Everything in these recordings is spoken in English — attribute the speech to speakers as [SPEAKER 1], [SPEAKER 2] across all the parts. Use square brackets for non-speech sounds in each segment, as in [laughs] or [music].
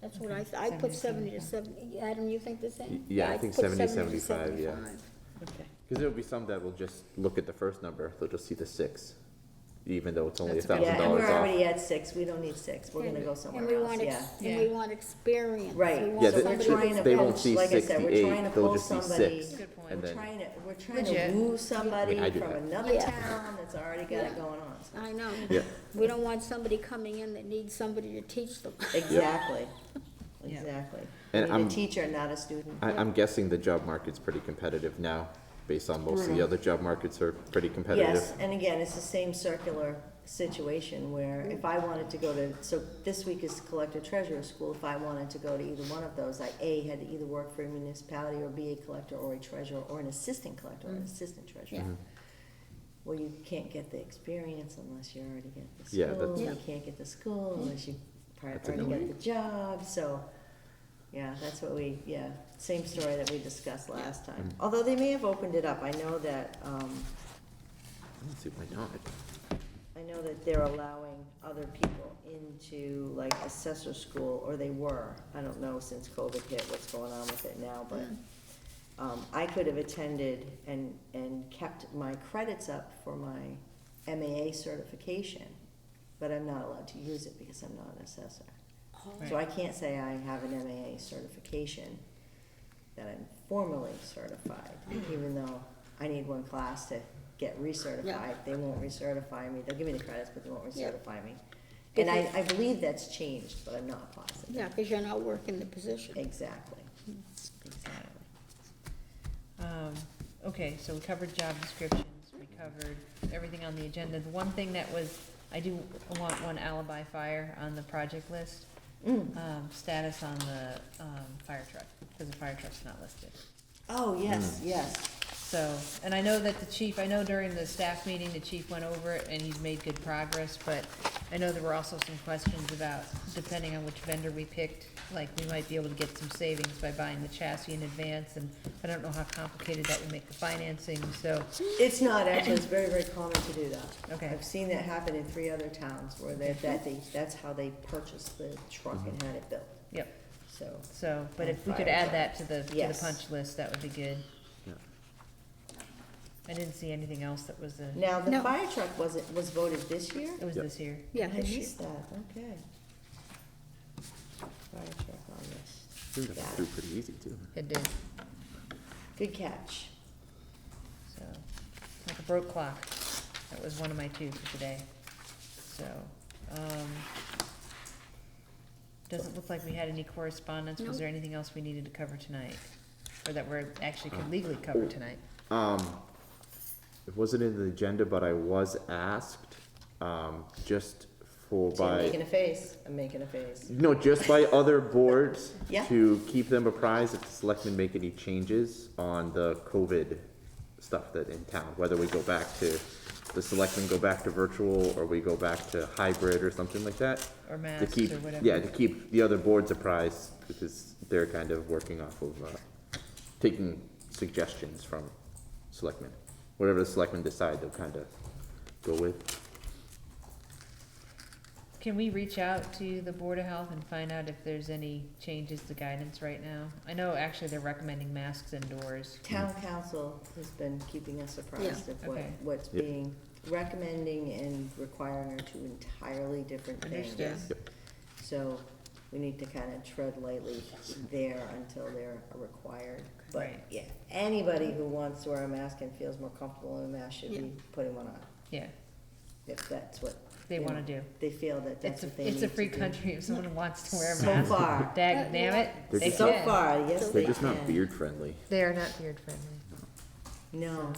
[SPEAKER 1] That's what I, th- I put seventy to seventy, Adam, you think the same?
[SPEAKER 2] Yeah, I think
[SPEAKER 1] put
[SPEAKER 2] 70,
[SPEAKER 1] 70 to
[SPEAKER 2] 75, yeah.
[SPEAKER 3] Okay.
[SPEAKER 2] Because there'll be some that will just look at the first number, they'll just see the six, even though it's only a
[SPEAKER 4] That's
[SPEAKER 2] thousand
[SPEAKER 4] okay. Yeah,
[SPEAKER 3] and
[SPEAKER 2] dollars
[SPEAKER 4] we're already
[SPEAKER 2] off.
[SPEAKER 4] at six, we don't need six, we're gonna go somewhere
[SPEAKER 1] And we
[SPEAKER 4] else,
[SPEAKER 1] want,
[SPEAKER 4] yeah.
[SPEAKER 1] ex- and we
[SPEAKER 3] Yeah.
[SPEAKER 1] want experience.
[SPEAKER 4] Right.
[SPEAKER 1] We want
[SPEAKER 2] Yeah,
[SPEAKER 4] So
[SPEAKER 2] they,
[SPEAKER 4] we're
[SPEAKER 1] somebody
[SPEAKER 4] trying
[SPEAKER 2] they-
[SPEAKER 4] to
[SPEAKER 2] they won't
[SPEAKER 4] poach-
[SPEAKER 2] see
[SPEAKER 4] like I said, we're trying to
[SPEAKER 2] sixty-eight, they'll
[SPEAKER 4] poach
[SPEAKER 2] just see
[SPEAKER 4] somebody.
[SPEAKER 2] six.
[SPEAKER 3] Good point.
[SPEAKER 2] And
[SPEAKER 4] We're
[SPEAKER 2] then,
[SPEAKER 4] trying to, we're trying to
[SPEAKER 3] Legit.
[SPEAKER 4] woo somebody
[SPEAKER 2] I do
[SPEAKER 4] from
[SPEAKER 2] that.
[SPEAKER 4] another
[SPEAKER 1] Yeah.
[SPEAKER 4] town that's already got
[SPEAKER 1] Yeah.
[SPEAKER 4] it going on.
[SPEAKER 1] I know.
[SPEAKER 2] yeah,
[SPEAKER 1] We don't want somebody coming in that needs somebody to teach them.
[SPEAKER 4] Exactly,
[SPEAKER 3] Yeah.
[SPEAKER 4] exactly.
[SPEAKER 2] And
[SPEAKER 4] We need
[SPEAKER 2] I'm-
[SPEAKER 4] a teacher, not a student.
[SPEAKER 2] I, I'm guessing the job market's pretty competitive now, based on most of the
[SPEAKER 4] Brutal.
[SPEAKER 2] other job markets are pretty competitive.
[SPEAKER 4] Mm-hmm. Yes, and again, it's the same circular situation where if I wanted to go to, so this week is collector treasurer school, if I wanted to go to either one of those, I, A, had to either work for a municipality or be a collector or a treasurer or an assistant collector or an assistant treasurer.
[SPEAKER 2] Mm-hmm.
[SPEAKER 4] Well, you can't get the experience unless you already get the
[SPEAKER 2] Yeah, that's-
[SPEAKER 4] school,
[SPEAKER 1] Yeah.
[SPEAKER 4] you can't get the school unless you par-
[SPEAKER 2] That's
[SPEAKER 4] already
[SPEAKER 2] annoying.
[SPEAKER 4] get the job, so. Yeah, that's what we, yeah, same story that we discussed last time,
[SPEAKER 2] Mm-hmm.
[SPEAKER 4] although they may have opened it up, I know that, um,
[SPEAKER 2] Let's see, why not?
[SPEAKER 4] I know that they're allowing other people into like assessor school, or they were. I don't know since COVID hit what's going on with it now, but um, I could have attended and, and kept my credits up for my MAA certification, but I'm not allowed to use it because I'm not an assessor. So I can't say I have an MAA certification, that I'm formally certified, even though I need one class to get
[SPEAKER 1] Yeah.
[SPEAKER 4] recertified. They won't recertify me, they'll give me the credits, but they won't
[SPEAKER 1] Yeah.
[SPEAKER 4] recertify me.
[SPEAKER 1] If
[SPEAKER 4] And I,
[SPEAKER 1] you-
[SPEAKER 4] I believe that's changed, but I'm not positive.
[SPEAKER 1] Yeah, because you're not working the position.
[SPEAKER 4] Exactly, exactly.
[SPEAKER 3] Um, Okay, so we covered job descriptions, we covered everything on the agenda. The one thing that was, I do want one alibi fire on the project list,
[SPEAKER 4] Mm.
[SPEAKER 3] um, status on the, um, fire truck, because the fire truck's not listed.
[SPEAKER 4] Oh, yes, yes,
[SPEAKER 3] So, and I know that the chief, I know during the staff meeting, the chief went over it and he's made good progress, but I know there were also some questions about, depending on which vendor we picked, like, we might be able to get some savings by buying the chassis in advance, and I don't know how complicated that would make the financing, so,
[SPEAKER 4] it's not, actually, it's very, very common to do that.
[SPEAKER 3] Okay.
[SPEAKER 4] I've seen that happen in three other towns where they, that they, that's how they purchased the truck and had it built,
[SPEAKER 3] yep.
[SPEAKER 4] so.
[SPEAKER 3] So, but if we could add that to the, to the
[SPEAKER 4] Yes.
[SPEAKER 3] punch list, that would be good.
[SPEAKER 2] Yeah.
[SPEAKER 3] I didn't see anything else that was a,
[SPEAKER 4] Now, the
[SPEAKER 1] No.
[SPEAKER 4] fire truck was, it was voted this year?
[SPEAKER 3] it was
[SPEAKER 2] Yep.
[SPEAKER 3] this year.
[SPEAKER 1] Yeah,
[SPEAKER 4] I
[SPEAKER 1] this year.
[SPEAKER 4] missed that, okay. Fire truck on this.
[SPEAKER 2] Dude, that's
[SPEAKER 4] Yeah.
[SPEAKER 2] through pretty easy too.
[SPEAKER 3] It did,
[SPEAKER 4] Good catch.
[SPEAKER 3] so, like a broke clock. That was one of my two for today. So, um, doesn't look like we had any correspondence. Was
[SPEAKER 1] Nope.
[SPEAKER 3] there anything else we needed to cover tonight? Or that we're actually could legally cover tonight?
[SPEAKER 2] Um, it wasn't in the agenda, but I was asked, um, just for
[SPEAKER 4] See, I'm
[SPEAKER 2] by.
[SPEAKER 4] making a face, I'm making a face.
[SPEAKER 2] No, just by other boards
[SPEAKER 4] Yeah.
[SPEAKER 2] to keep them apprised if the selectmen make any changes on the COVID stuff that in town, whether we go back to, the selectmen go back to virtual or we go back to hybrid or something like that.
[SPEAKER 3] Or
[SPEAKER 2] To
[SPEAKER 3] masks
[SPEAKER 2] keep,
[SPEAKER 3] or whatever?
[SPEAKER 2] yeah, to keep the other boards apprised because they're kind of working off of, uh, taking suggestions from selectmen. Whatever the selectmen decide, they'll kind of go with.
[SPEAKER 3] Can we reach out to the Board of Health and find out if there's any changes to guidance right now? I know actually they're recommending masks indoors.
[SPEAKER 4] Town council has been keeping us surprised of what,
[SPEAKER 3] Okay.
[SPEAKER 4] what's
[SPEAKER 2] Yep.
[SPEAKER 4] being recommending and requiring are two entirely different
[SPEAKER 3] Understood.
[SPEAKER 4] things. So we need to kind of tread lightly there until they're required. But
[SPEAKER 3] Right.
[SPEAKER 4] yeah, anybody who wants to wear a mask and feels more comfortable in a mask should be putting one on,
[SPEAKER 3] Yeah,
[SPEAKER 4] if that's what.
[SPEAKER 3] they
[SPEAKER 4] you know,
[SPEAKER 3] wanna do.
[SPEAKER 4] They feel that that's
[SPEAKER 3] It's a,
[SPEAKER 4] what they need to do.
[SPEAKER 3] it's a free country if someone wants to wear a
[SPEAKER 4] So
[SPEAKER 3] mask.
[SPEAKER 4] far.
[SPEAKER 3] Dag damn it,
[SPEAKER 2] They're
[SPEAKER 3] [laughs] they
[SPEAKER 2] just-
[SPEAKER 4] So
[SPEAKER 3] can.
[SPEAKER 4] far, yes, they
[SPEAKER 2] They're just not
[SPEAKER 4] can.
[SPEAKER 2] beard friendly.
[SPEAKER 3] They are not beard friendly.
[SPEAKER 4] No, no.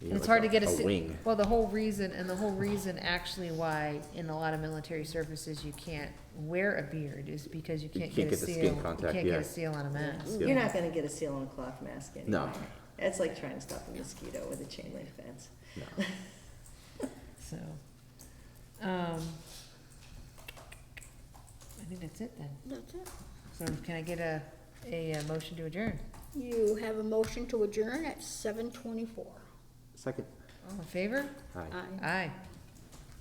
[SPEAKER 2] You
[SPEAKER 3] And
[SPEAKER 2] know,
[SPEAKER 3] it's
[SPEAKER 2] like
[SPEAKER 3] hard to get a, si-
[SPEAKER 2] wing.
[SPEAKER 3] well, the whole reason, and the whole reason actually why in a lot of military services you can't wear a beard is because you can't
[SPEAKER 2] can't
[SPEAKER 3] get a
[SPEAKER 2] get the
[SPEAKER 3] seal.
[SPEAKER 2] skin contact,
[SPEAKER 3] You can't
[SPEAKER 2] yeah.
[SPEAKER 3] get a seal on a mask.
[SPEAKER 2] Yeah.
[SPEAKER 4] You're not gonna get a seal on a cloth mask anyway.
[SPEAKER 2] No.
[SPEAKER 4] It's like trying to stop a mosquito with a chain link fence.
[SPEAKER 2] No.
[SPEAKER 3] So, um, I think that's it then.
[SPEAKER 1] That's it.
[SPEAKER 3] So can I get a, a uh, motion to adjourn?
[SPEAKER 1] You have a motion to adjourn at seven twenty-four.
[SPEAKER 2] Second,
[SPEAKER 3] All in favor?
[SPEAKER 2] hi.
[SPEAKER 1] Aye.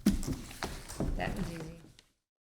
[SPEAKER 3] Aye. That was easy.